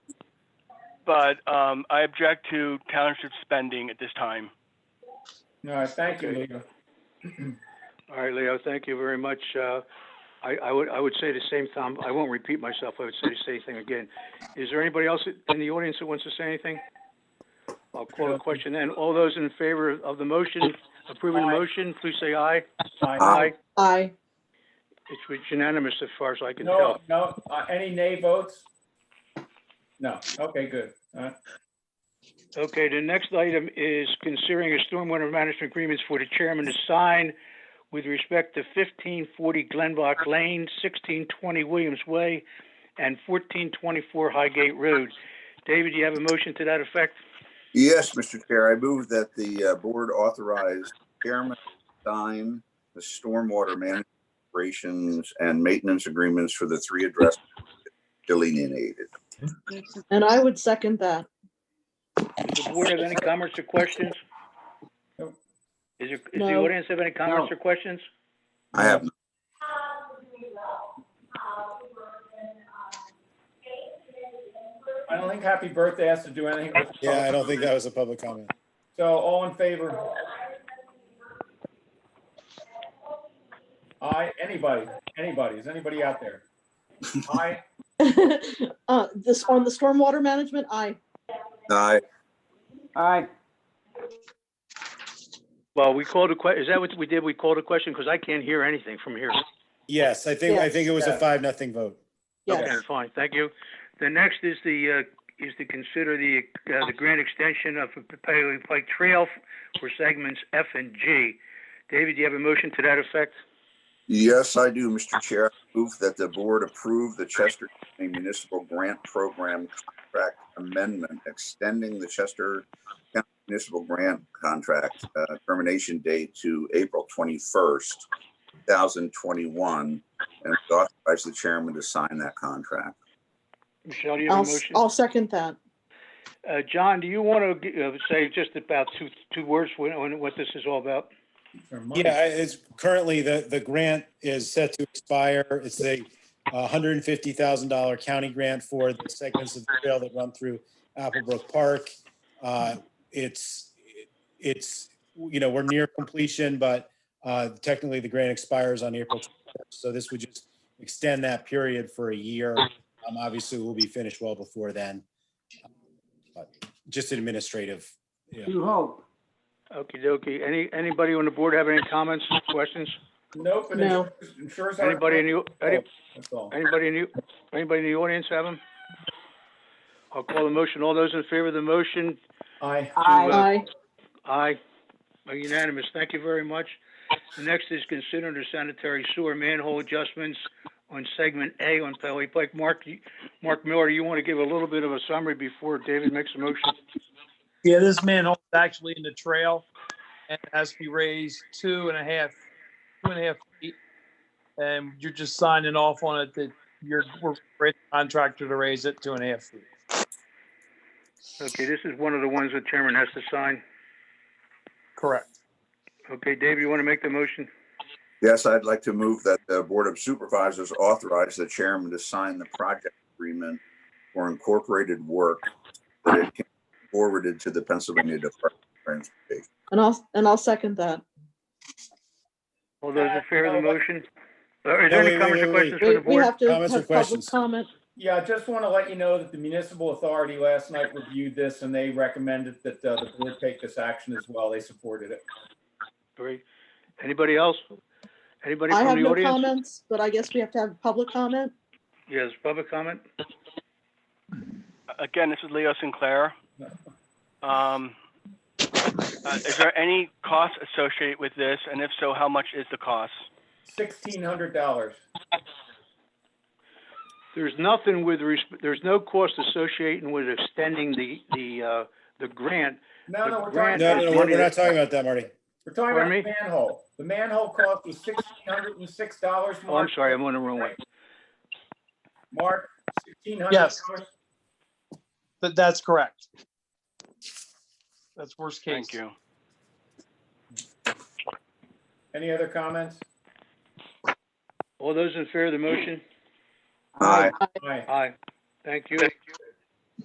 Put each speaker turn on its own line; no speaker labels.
but um, I object to township spending at this time.
All right, thank you,
Okay.
Leo.
All right, Leo, thank you very much. Uh, I, I would, I would say the same, Tom, I won't repeat myself, I would say the same thing again. Is there anybody else in the audience that wants to say anything? I'll call the question then. All those in favor of the motion, approving the
Aye.
motion, please say aye.
Aye.
Aye.
It's unanimous as far as I can
No,
tell.
no, uh, any nay votes? No, okay, good. Uh, All right.
Okay, the next item is considering a stormwater management agreements for the chairman to sign with respect to fifteen forty Glenbach Lane, sixteen twenty Williams Way, and fourteen twenty-four Highgate Road. David, do you have a motion to that effect?
Yes, Mr. Chair, I move that the uh, board authorize chairman to sign the stormwater management operations and maintenance agreements for the three addresses delineated.
And I would second that.
Does the board have any comments or questions?
Nope.
Is there, is the
No.
audience have any comments or questions?
I have,
I don't think happy birthday has to do anything with.
Yeah, I don't think that was a public comment.
So all in favor? Aye, anybody, anybody, is anybody out there? Aye,
Uh, This, on the stormwater management, aye.
I,
Well, we called a que, is that what we did? We called a question? Because I can't hear anything from here.
Yes, I think, I think it was a
Yeah.
five, nothing vote.
Yes.
Okay, fine, thank you. The next is the, uh, is to consider the, uh, the grant extension of the Paley Pike Trail for segments F and G. David, do you have a motion to that effect?
yes, I do, Mr. Chair. I Move that the board approve the Chester County Municipal Grant Program Contract Amendment, extending the Chester County Municipal Grant Contract uh, termination date to April twenty-first, two thousand twenty-one, and authorize the chairman to sign that contract.
Michelle, do you have a
I'll,
motion?
I'll second that.
Uh, John, do you want to, uh, say just about two, two words when, when, what this is all about?
or money.
Yeah, I- it's currently, the, the grant is set to expire. It's a hundred and fifty thousand dollar county grant for the segments of the trail that run through Applebrook Park. Uh, It's, it's, you know, we're near completion, but uh, technically the grant expires on April 21st. So this would just extend that period for a year. Um, Obviously, we'll be finished well before then. But Just administrative. yeah.
Okey dokey. Any, anybody on the board have any comments, questions?
Nope, and
No.
insurance- insurance.
Anybody in the, any-
That's all.
anybody in the, anybody in the audience have them? I'll call the motion. All those in favor of the motion
Aye,
to, uh,
Aye.
Aye. Are Unanimous. Thank you very much. The next is consider the sanitary sewer manhole adjustments on segment A on Pelly Pike. Mark, you- Mark Miller, you want to give a little bit of a summary before David makes a motion?
Yeah, this manhole is actually in the trail and it has to be raised two and a half, two and a half feet. And you're just signing off on it that you're, we're ready to contractor to raise it two and a half feet.
Okay, this is one of the ones the chairman has to sign.
Correct.
Okay, David, you want to make the motion?
Yes, I'd like to move that the Board of Supervisors authorize the chairman to sign the project agreement for incorporated work that it can be forwarded to the Pennsylvania Department of Transportation.
And I'll, and I'll second that.
All those in favor of the motion? Uh, Are there
Wait,
any
wait,
comments or
wait, wait.
questions from
We
the
we
board?
have to
comments or
have public
questions?
comment.
yeah, I just want to let you know that the municipal authority last night reviewed this and they recommended that uh, the board take this action as well, they supported it.
Great. Anybody else? Anybody
I have
from the
no
audience?
comments, but I guess we have to have public comment.
Yes, public comment?
Again, this is Leo Sinclair. Um, uh, is there any cost associated with this? And if so, how much is the cost?
Sixteen hundred dollars.
There's nothing with, resp- there's no cost associated with extending the, the, uh, the grant.
No, no, we're talking.
Grant
No, no, no, we're
money
we're not
that-
talking about that, Marty.
We're talking about
Pardon
the manhole. The manhole cost was sixteen hundred and six dollars,
Oh, I'm
Mark.
sorry, I'm on the wrong one.
Mark, sixteen hundred dollars.
Yes. That, that's correct. That's worst case.
Thank you.
Any other comments?
All those in favor of the motion?
Aye.
Aye.
Aye. Thank you.